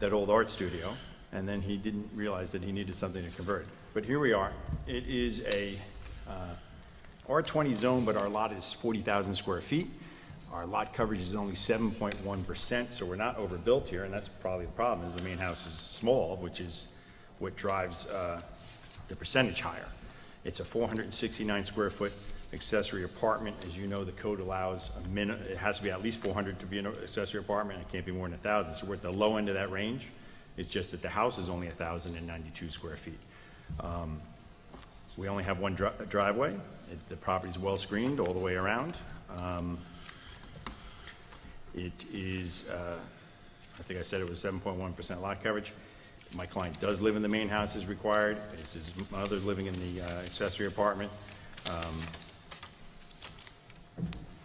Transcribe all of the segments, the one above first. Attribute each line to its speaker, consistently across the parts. Speaker 1: that old art studio, and then he didn't realize that he needed something to convert. But here we are. It is a uh, R20 zone, but our lot is 40,000 square feet. Our lot coverage is only 7.1%, so we're not overbuilt here, and that's probably the problem, is the main house is small, which is what drives uh, the percentage higher. It's a 469 square foot accessory apartment. As you know, the code allows a min, it has to be at least 400 to be an accessory apartment, it can't be more than 1,000. So we're at the low end of that range. It's just that the house is only 1,092 square feet. We only have one dri- driveway. It- The property's well-screened all the way around. Um, It is, uh, I think I said it was 7.1% lot coverage. My client does live in the main house as required. It's his mother living in the uh, accessory apartment. Um,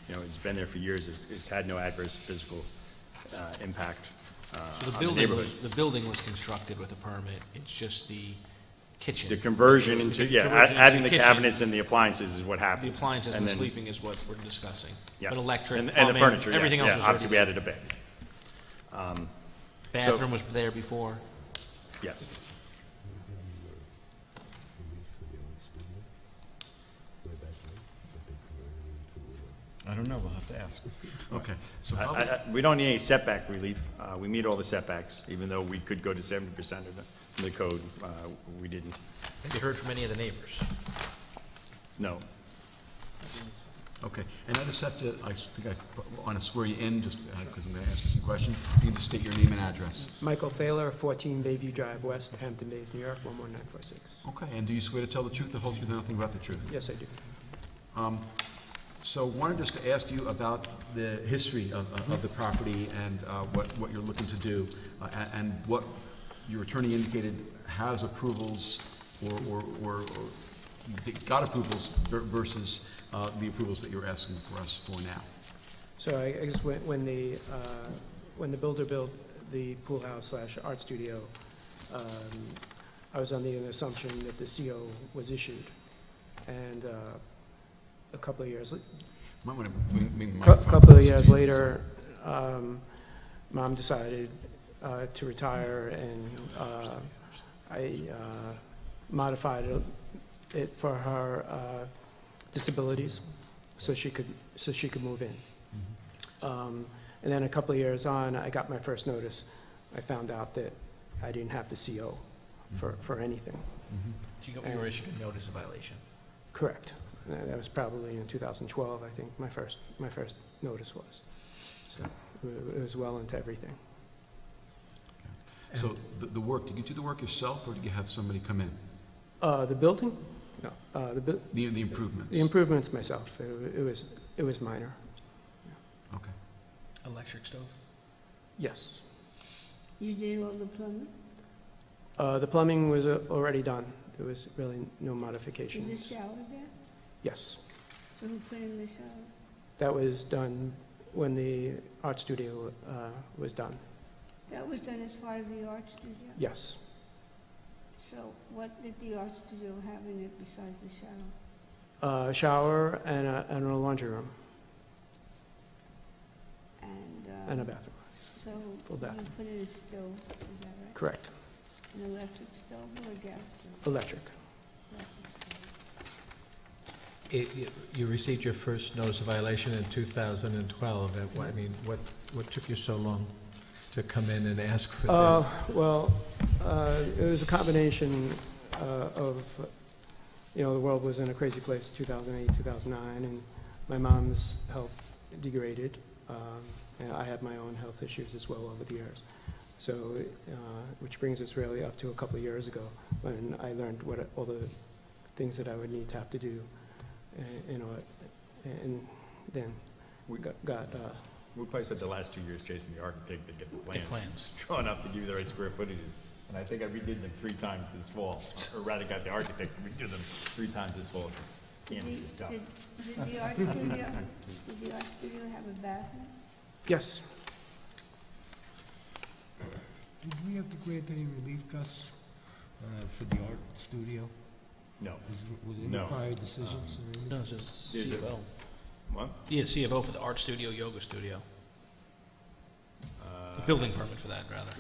Speaker 1: You know, it's been there for years. It's- It's had no adverse physical uh, impact uh,
Speaker 2: So the
Speaker 1: on the
Speaker 2: building
Speaker 1: neighborhood.
Speaker 2: was, the building was constructed with a permit, it's just the kitchen.
Speaker 1: The conversion into, yeah,
Speaker 2: Conversion
Speaker 1: a-
Speaker 2: into
Speaker 1: adding the
Speaker 2: kitchen.
Speaker 1: cabinets and the appliances is what happened.
Speaker 2: The appliances and
Speaker 1: And
Speaker 2: the
Speaker 1: then-
Speaker 2: sleeping is what we're discussing.
Speaker 1: Yes.
Speaker 2: But electric,
Speaker 1: And- and the
Speaker 2: plumbing,
Speaker 1: furniture, yes,
Speaker 2: everything
Speaker 1: yeah,
Speaker 2: else was
Speaker 1: Obviously, we
Speaker 2: already,
Speaker 1: added a bed,
Speaker 2: bathroom was there before.
Speaker 1: yes.
Speaker 3: I don't know, we'll have to ask. Okay, so
Speaker 1: I-
Speaker 3: public,
Speaker 1: I- I- We don't need any setback relief. Uh, We meet all the setbacks, even though we could go to seventy percent of the- the code. Uh, We didn't,
Speaker 2: Have you heard from any of the neighbors?
Speaker 1: no.
Speaker 3: okay, and I just have to, I s- think I want to swear you in, just, because I'm going to ask you some questions. You can just state your name and address.
Speaker 4: Michael Thaler, 14 Bayview Drive West, Hampton Bays, New York, 11946.
Speaker 3: Okay, and do you swear to tell the truth, the whole truth, and nothing but the truth?
Speaker 4: Yes, I do.
Speaker 3: So wanted just to ask you about the history of, of- of the property and uh, what, what you're looking to do, uh, a- and what your attorney indicated has approvals or, or, or or got approvals ver- versus uh, the approvals that you're asking for us for now.
Speaker 4: So I I guess when, when the, uh, when the builder built the pool house slash art studio, um, I was under the assumption that the CO was issued. And uh, a couple of years,
Speaker 3: Might want to wing, wing the
Speaker 4: Cou-
Speaker 3: microphone
Speaker 4: Couple
Speaker 3: closer
Speaker 4: of
Speaker 3: to you,
Speaker 4: years
Speaker 3: so-
Speaker 4: later, um, mom decided uh, to retire, and uh, I uh, modified it- it for her uh, disabilities, so she could, so she could move in. Um, And then a couple of years on, I got my first notice. I found out that I didn't have the CO for, for anything.
Speaker 3: Mm-hmm.
Speaker 2: You got- you were issued a notice of violation.
Speaker 4: Correct. Uh, That was probably in 2012, I think, my first, my first notice was. So it was well into everything.
Speaker 3: So the, the work, did you do the work yourself, or did you have somebody come in?
Speaker 4: Uh, The building? No. Uh, The bu-
Speaker 3: The, the improvements?
Speaker 4: the improvements myself, it wa- it was, it was minor.
Speaker 3: Okay.
Speaker 2: Electric stove?
Speaker 4: Yes.
Speaker 5: You did all the plumbing?
Speaker 4: Uh, The plumbing was uh, already done. There was really no
Speaker 5: Is a
Speaker 4: modifications.
Speaker 5: shower there?
Speaker 4: Yes.
Speaker 5: So who put in the shower?
Speaker 4: That was done when the art studio uh, was done.
Speaker 5: That was done as part of the art studio?
Speaker 4: Yes.
Speaker 5: So what did the art studio have in it besides the shower?
Speaker 4: Uh, Shower and a and a laundry room
Speaker 5: And, uh...
Speaker 4: and a bathroom.
Speaker 5: So
Speaker 4: full
Speaker 5: you
Speaker 4: bathroom.
Speaker 5: put in a stove, is that right?
Speaker 4: Correct.
Speaker 5: An electric stove or a gas stove?
Speaker 4: Electric.
Speaker 5: Electric stove.
Speaker 6: It- You you received your first notice of violation in 2012. At what- I mean, what, what took you so long to come in and ask for
Speaker 4: Uh,
Speaker 6: this?
Speaker 4: Well, uh, it was a combination uh, of, you know, the world was in a crazy place, 2008, 2009, and my mom's health degraded. Um, And I had my own health issues as well over the years. So, uh, which brings us really up to a couple of years ago, when I learned what, all the things that I would need to have to do, and, you know, and then
Speaker 1: We-
Speaker 4: got- got, uh,
Speaker 1: We probably spent the last two years chasing the architect to get the
Speaker 2: The
Speaker 1: plans
Speaker 2: plans.
Speaker 1: drawn up to give you the right square footage. And I think I redid them three times this fall, or rather got the architect to redo them three times this fall, because Candace is tough.
Speaker 5: Did, did the art studio, did the art studio have a bathroom?
Speaker 4: yes,
Speaker 7: Did we have to grant any relief, Gus, uh, for the art studio?
Speaker 1: No.
Speaker 7: Was was it
Speaker 1: No.
Speaker 7: any prior decisions or anything?
Speaker 2: No, it's just
Speaker 1: Is
Speaker 2: C
Speaker 1: it-
Speaker 2: of O.
Speaker 1: What?
Speaker 2: Yeah, C of O for the art studio, yoga studio. Building permit for that, rather.